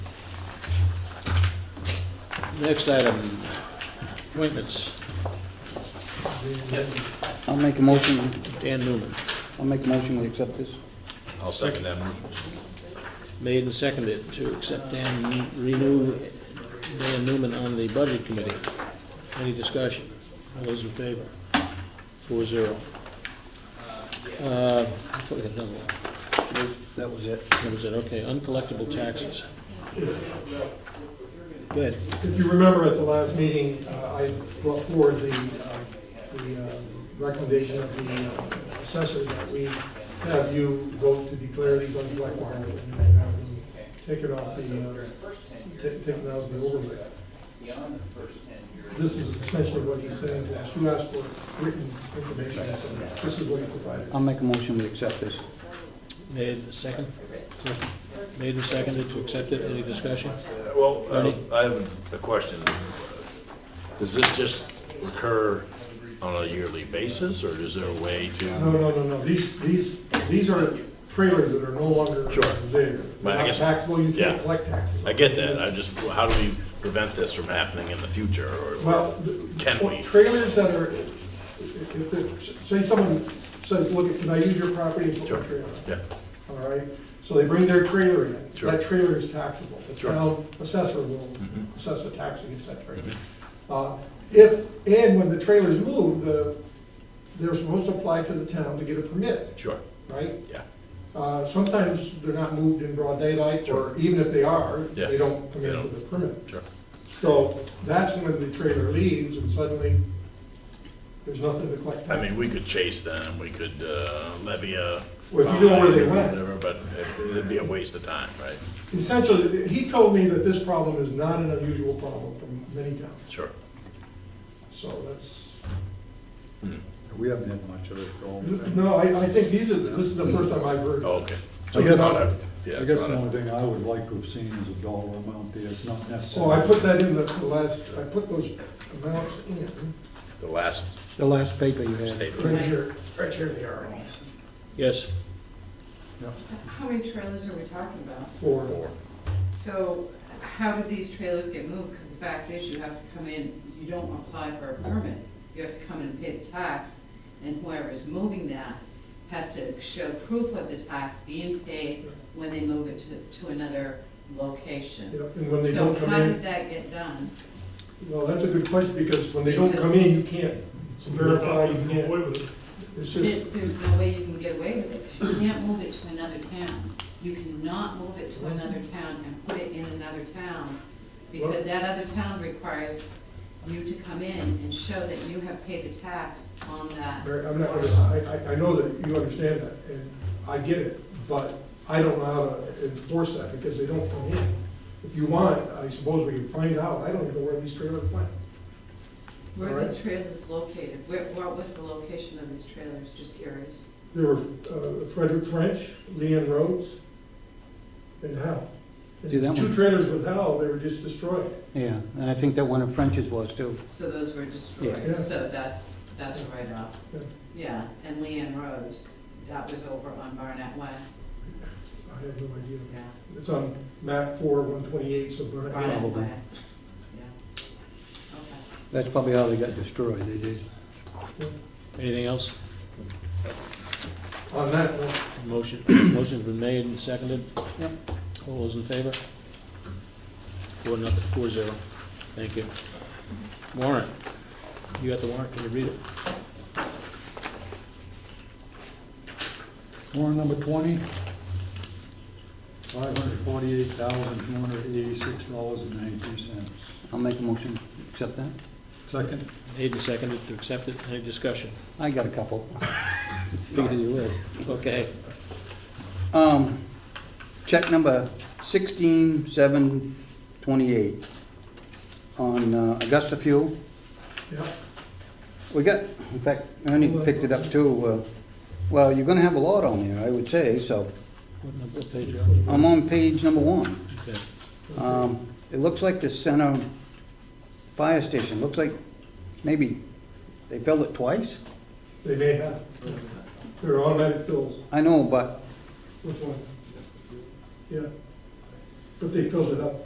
Next item, appointments, I'll make a motion, Dan Newman, I'll make a motion, we accept this. I'll second that motion. made and seconded to accept Dan, renew Dan Newman on the Budget Committee. Any discussion? All those in favor? Four zero. Uh, I thought we had another one. That was it. That was it, okay, uncollectible taxes. Good, If you remember at the last meeting, uh, I brought forward the, uh, the uh, recommendation of the uh, assessor that we have you vote to declare these uncollectible and have them take it off the, uh, ta- take it out of the overlay. This is essentially what he's saying, to us. you asked for written information, so this is what he provided. I'll make a motion, we accept this. made, and second? Made and seconded to accept it, any discussion? Well, uh, Ernie? I have a question. Does this just recur on a yearly basis, or is there a way No, to? no, no, no, these, these, these are trailers that are no longer Sure. there. But I They're not guess- Taxable, you yeah. can't collect taxes. I get that, I just, how do we prevent this from happening in the future, or Well, the- can we? trailers that are, if, if, if- say someone says, look, can I use your property and put Sure. my trailer? Yeah, All right, so they bring their trailer in, Sure. that trailer is taxable, the Sure. Mm-hmm. town assessor will assess the tax against that trailer. Uh, If, and when the trailers move, the, they're supposed to apply to the town to get a permit, sure, right? yeah, Uh, Sometimes they're not moved in broad daylight, or even if they are, Yeah. they don't come They in don't. with a permit. sure. So that's when the trailer leaves and suddenly there's nothing to collect. I mean, we could chase them, we could uh, levy a. Well, if you know where they fine or went. whatever, But it- it'd be a waste of time, right? Essentially, he told me that this problem is not an unusual problem for many towns, Sure. so that's, We haven't had much of it going. no, I, I think these are, this is the first time I've heard. Oh, of Okay. So I it's guess- not a, yeah, I it's guess not the a, only thing I would like to have seen is a dollar amount there, it's not it. necessary. So Oh, I put that in the the last, I put those amounts in, the last The last paper you had. state. right here, right here they are, Yes, So How many trailers are we talking about? for, So how did these trailers get moved? Because the fact is, you have to come in, you don't apply for a permit. You have to come and pay the tax, and whoever is moving that has to show proof of the tax being paid when they move it to, to another you location. know, and when they So don't come how did in, that get done? well, that's a good question, because when they don't come in, you can't verify, you can't. It's There- just, There's no way you can get away with it. 'cause You can't move it to another town. You cannot move it to another town and put it in another town, because that other town requires you to come in and show that you have paid the tax on that. Mary, I'm not gonna, I, I, I know that you understand that, and I get it, but I don't know how to enforce that, because they don't come in. If you want, I suppose we can find out, I don't even know where these trailers went. Where this trailer is located, where, what was the location of these trailers, just curious? There were uh, Frederick French, Leanne Rhodes, and Hal. And See, that Two one- trailers with Hal, they were just destroyed. Yeah, and I think that one of French's was too. So those were Yeah. destroyed, so that's, that's right up. Yeah. Yeah, and Leanne Rose, that was over on Barnett Way, I have no idea. yeah. It's on map four, one twenty-eight, so Burnett. Right, that's Probably. why. Yeah. Okay. That's probably how they got destroyed, they just, anything else? On that one. Motion, motion's been made and seconded. Yep. All those in favor? Four, nothing, four zero. Thank you. Warrant. You got the warrant, can you read it? Warrant number twenty, five hundred forty-eight thousand, two hundred eighty-six dollars and ninety-three cents. I'll make a motion, accept that. Second, Made and seconded to accept it. Any discussion? I got a couple. Figured you would. Okay. Um, check number sixteen seven twenty-eight on uh, Augusta Fuel. Yeah. We got, in fact, Ernie picked it up too. uh, Well, you're gonna have a lot on there, I would say, so. What number, what page are you I'm on page number one. on? Okay. Um, It looks like the center fire station, looks like maybe they filled it twice? They may have. They're automatic fills. I know, but Which one? Yeah. But they filled it up.